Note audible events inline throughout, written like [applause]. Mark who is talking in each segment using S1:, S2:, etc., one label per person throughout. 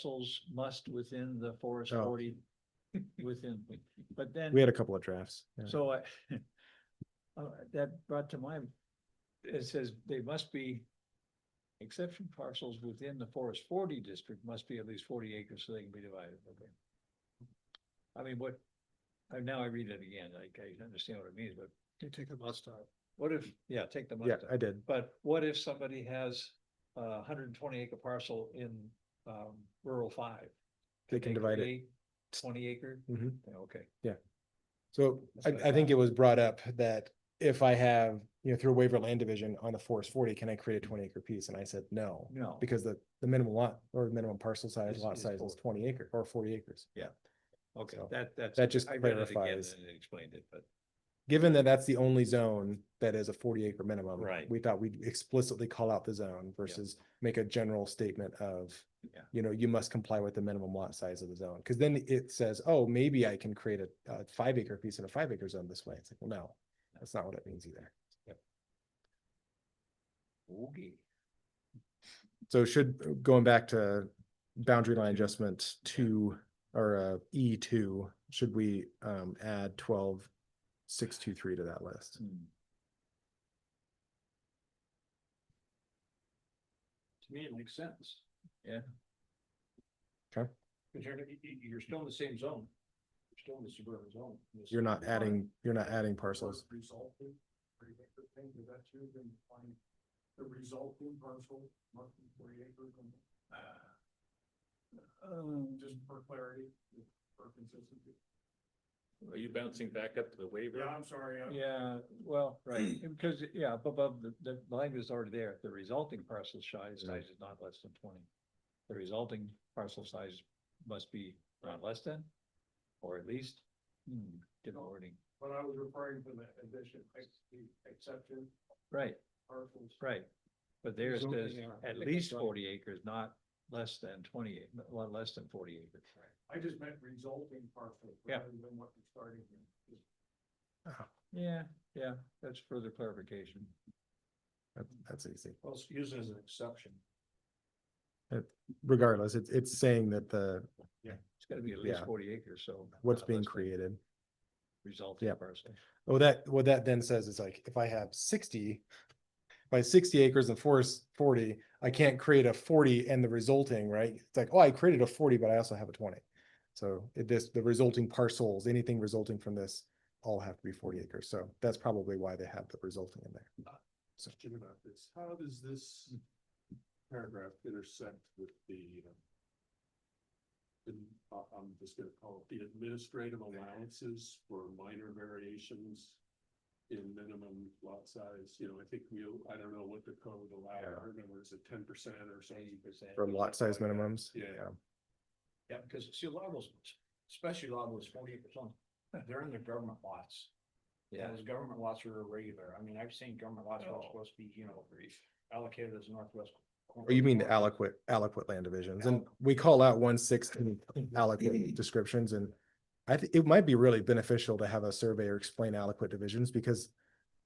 S1: parcels must within the forest
S2: Oh.
S1: forty, within, but then.
S2: We had a couple of drafts. yeah.
S1: So I, [laughs] uh, that brought to mind, it says they must be exception parcels within the forest forty district must be at least forty acres so they can be divided, okay? I mean, what, I, now I read it again, like, I understand what it means, but. You take the must out. What if, yeah, take the must
S2: Yeah,
S1: out.
S2: I did.
S1: But what if somebody has a hundred and twenty acre parcel in um rural five?
S2: They can divide it.
S1: create Twenty acre,
S2: Mhm.
S1: Yeah, okay,
S2: So
S1: That's
S2: I,
S1: what I
S2: I think
S1: thought.
S2: it was brought up that if I have, you know, through a waiver land division on the forest forty, can I create a twenty acre piece? And I said, no.
S1: no,
S2: Because the, the minimum lot or minimum parcel size,
S1: Is-
S2: lot
S1: is
S2: size is
S1: 40.
S2: twenty acre or forty acres.
S1: okay,
S2: so
S1: that that's.
S2: that just
S1: I read it again
S2: clarifies.
S1: And it explained it, but
S2: Given that that's the only zone that is a forty acre minimum.
S1: Right.
S2: We thought we'd explicitly call out the zone versus make a general statement of,
S1: Yeah.
S2: you know, you must comply with the minimum lot size of the zone. Cause then it says, oh, maybe I can create a, a five acre piece in a five acre zone this way. It's like, well, no, that's not what it means either.
S1: okay,
S2: So should, going back to boundary line adjustment two or uh E two, should we um add twelve six two three to that list?
S1: hmm.
S3: To me, it makes sense.
S1: Yeah.
S2: Okay.
S3: Cause you're, you- you- you're still in the same zone. You're still in the suburban zone.
S2: You're not adding, you're not adding parcels.
S3: Resulting, three acre thing, is that you can find the resulting parcel, roughly forty acres. and
S1: Um,
S3: Just for clarity, for consistency.
S4: Are you bouncing back up to the
S3: Yeah,
S4: waiver?
S3: I'm sorry. I'm-
S1: yeah, well, right,
S2: Hmm.
S1: because, yeah, up above, the the language is already there, the resulting parcel
S2: Hmm.
S1: size size is not less than twenty. The resulting parcel size must be not less than, or at least, hmm, different wording,
S3: But I was referring to the addition, ex- the exception
S1: right?
S3: parcels.
S1: Right, but there it
S3: Something
S1: says
S3: there.
S1: at
S3: Like
S1: least
S3: a drawing.
S1: forty acres, not less than twenty, ac- not one less than forty acres.
S3: I just meant resulting parcel.
S1: Yeah.
S3: Rather than what you're starting with.
S1: Yeah, yeah, that's further clarification.
S2: That- That's easy.
S3: Well, it's used as an exception.
S2: Regardless, it's it's saying that the,
S1: It's gotta be at least
S2: Yeah.
S1: forty acres, so.
S2: what's
S1: not
S2: being
S1: less than
S2: created.
S1: Resulting
S2: Yep.
S1: parcel.
S2: Oh, that, what that then says is like, if I have sixty, by sixty acres and forest forty, I can't create a forty and the resulting, right? It's like, oh, I created a forty, but I also have a twenty. So it just, the resulting parcels, anything resulting from this, all have to be forty acres. So that's probably why they have the resulting in there.
S3: question about this. How does this paragraph intersect with the um, the- I- I'm just gonna call it the administrative allowances for minor variations in minimum lot size, you know, I think we, I don't know what the code allowed,
S2: Yeah.
S3: I remember it's a ten percent or something.
S1: percent.
S2: For lot size minimums.
S3: Yeah.
S1: Yeah, because see, a lot of those, especially a lot of those forty percent, they're in their government lots. Yeah. Those government lots are irregular. I mean, I've seen government lots
S2: Oh.
S3: that are
S1: supposed to be, you know, allocated as northwest.
S2: Or Oh, you mean the aliquot, aliquot land divisions, and we call out one sixth aliquot descriptions and. I think it might be really beneficial to have a surveyor explain aliquot divisions because.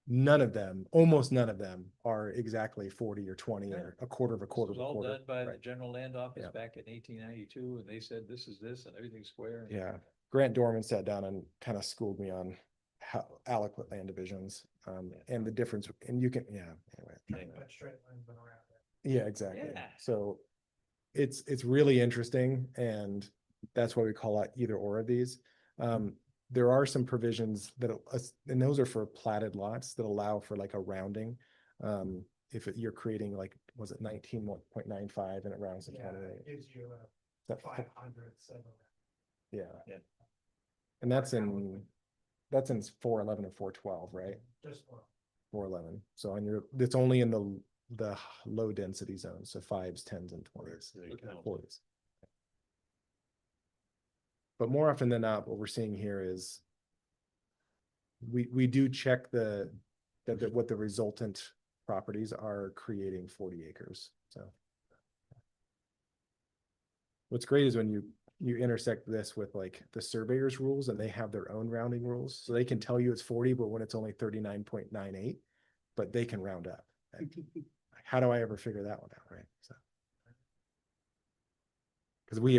S2: None of them, almost none of them are exactly forty or twenty or a quarter of a
S1: This
S2: quarter
S1: was
S2: of a
S1: all
S2: quarter.
S1: done by the
S2: right.
S1: general land office
S2: Yeah.
S1: back in eighteen ninety-two, and they said, this is this, and everything's square. and-
S2: Yeah. Grant Dorman sat down and kind of schooled me on how aliquot land divisions, um, and the difference, and you can, yeah, anyway.
S3: straight line's been around that.
S2: Yeah, exactly.
S1: Yeah.
S2: So it's, it's really interesting and that's why we call out either or of these. Um, there are some provisions that, al- us- and those are for platted lots that allow for like a rounding. Um, if it- you're creating like, was it nineteen point nine five and it rounds to twenty?
S3: gives you
S2: That-
S3: hundredths of
S2: Yeah.
S1: Yeah.
S2: And that's in, that's in four eleven and four twelve, right?
S3: just one.
S2: Four eleven. So on your, it's only in the, the h- low density zone. So fives, tens and twenties. employees. But more often than not, what we're seeing here is we, we do check the, that, that what the resultant properties are creating forty acres, so. What's great is when you, you intersect this with like the surveyors rules and they have their own rounding rules, so they can tell you it's forty, but when it's only thirty-nine point nine eight, but they can round up. Like, How do I ever figure that one out, right? So. Cause we